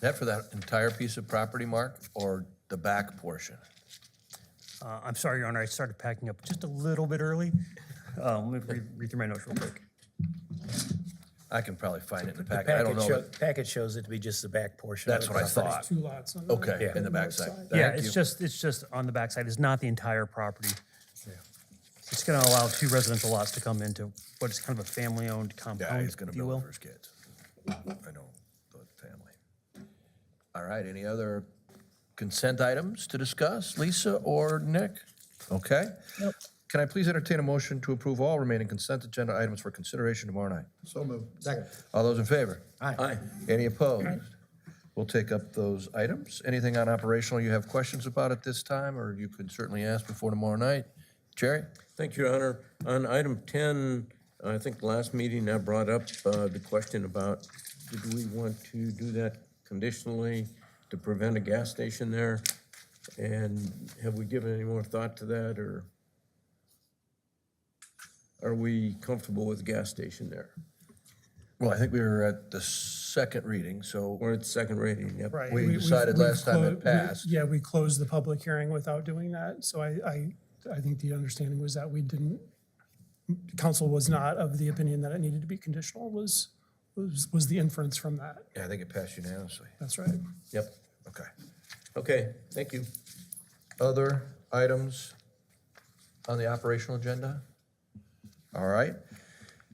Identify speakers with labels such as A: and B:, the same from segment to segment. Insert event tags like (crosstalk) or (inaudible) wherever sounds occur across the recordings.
A: that for that entire piece of property, Mark, or the back portion?
B: Uh, I'm sorry, Your Honor, I started packing up just a little bit early. Uh, Let me read- read through my notes real quick.
A: I can probably find it in the
C: The
A: packet. I don't
C: packet
A: know.
C: show-
A: that-
C: Packet shows it to be just the back portion. of
A: That's
C: the
A: what I
C: property.
A: thought.
D: Two lots on the.
A: Okay, in the backside.
B: Yeah,
A: Thank you.
B: it's just, it's just on the backside. It's not the entire property. It's going to allow two residential lots to come into what is kind of a family-owned
A: Yeah,
B: compound,
A: he's gonna
B: if you
A: build it
B: will.
A: for his kids. I know, the family. All right, any other consent items to discuss, Lisa or Nick? Okay? Can I please entertain a motion to approve all remaining consent agenda items for consideration tomorrow night?
E: So moved. Second.
A: All those in favor?
E: Aye. Aye.
A: Any opposed? We'll take up those items. Anything on operational you have questions about at this time, or you could certainly ask before tomorrow night? Jerry?
F: Thank you, Your Honor. On item 10, I think last meeting I brought up uh, the question about, did we want to do that conditionally to prevent a gas station there? And have we given any more thought to that, or are we comfortable with the gas station there?
A: Well, I think we were at the second reading, so
F: Or it's second rating, yep.
D: Right.
A: We
D: we've-
A: decided
D: we've
A: last time it
D: clo- we-
A: passed.
D: Yeah, we closed the public hearing without doing that, so I, I, I think the understanding was that we didn't, council was not of the opinion that it needed to be conditional was, was, was the inference from that.
A: yeah, I think it passed unanimously.
D: That's right.
F: Yep.
A: Okay.
F: Okay, thank you.
A: Other items on the operational agenda? All right.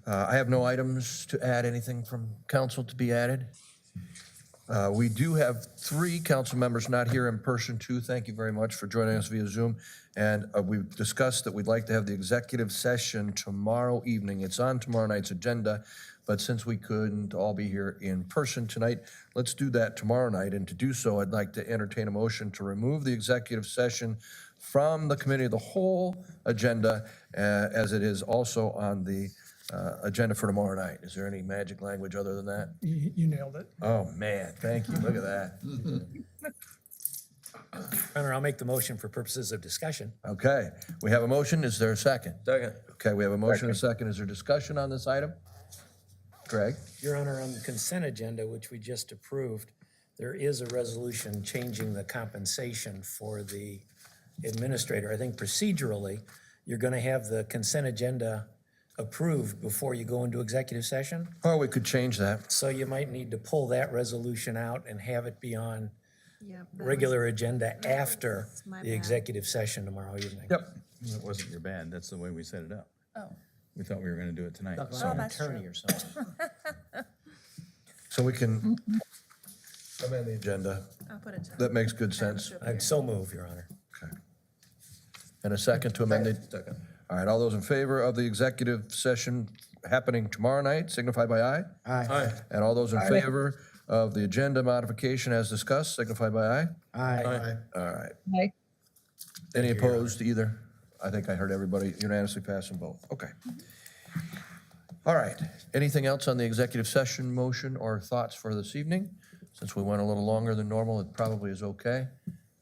A: Uh, I have no items to add, anything from council to be added. Uh, We do have three council members not here in person, too. Thank you very much for joining us via Zoom. And uh, we've discussed that we'd like to have the executive session tomorrow evening. It's on tomorrow night's agenda, but since we couldn't all be here in person tonight, let's do that tomorrow night. And to do so, I'd like to entertain a motion to remove the executive session from the committee of the whole agenda, uh, as it is also on the uh, agenda for tomorrow night. Is there any magic language other than that?
D: You, you nailed it.
A: Oh, man, thank you. Look at that.
C: Your Honor, I'll make the motion for purposes of discussion.
A: Okay, we have a motion. Is there a second?
F: Second.
A: Okay, we have a motion and a second. Is there discussion on this item? Greg?
C: Your Honor, on the consent agenda, which we just approved, there is a resolution changing the compensation for the administrator. I think procedurally, you're going to have the consent agenda approved before you go into executive session.
A: Oh, we could change that.
C: So you might need to pull that resolution out and have it be on
G: Yeah, that was-
C: regular agenda after
G: my
C: the
G: bad.
C: executive session tomorrow evening.
A: Yep.
H: That wasn't your bad, that's the way we set it up.
G: Oh.
H: We thought we were gonna do it tonight.
G: Oh,
H: So
G: that's true.
C: or something.
A: So we can amend the agenda.
G: I'll put it to.
A: That makes good sense.
C: I'd so move, Your Honor.
A: Okay. And a second to amend it? Second. All right, all those in favor of the executive session happening tomorrow night signify by aye.
E: Aye.
A: And all those in favor of the agenda modification as discussed signify by aye.
E: Aye.
A: All right. Any opposed either? I think I heard everybody unanimously passing both. Okay. All right. Anything else on the executive session motion or thoughts for this evening? Since we went a little longer than normal, it probably is okay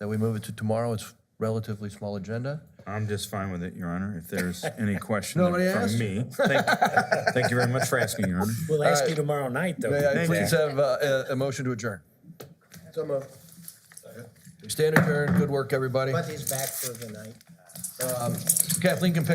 A: that we move it to tomorrow. It's relatively small agenda.
H: I'm just fine with it, Your Honor,
A: (laughs)
H: if there's any question
A: Nobody asked
H: from me. Thank thank you very much for asking, Your Honor.
C: We'll ask you tomorrow night, though.
A: May I
H: Thank
A: please
H: you.
A: have uh, a, a motion to adjourn?
E: So moved.
A: Stand adjourned. Good work, everybody.
C: he's back for the night.
A: Kathleen can pick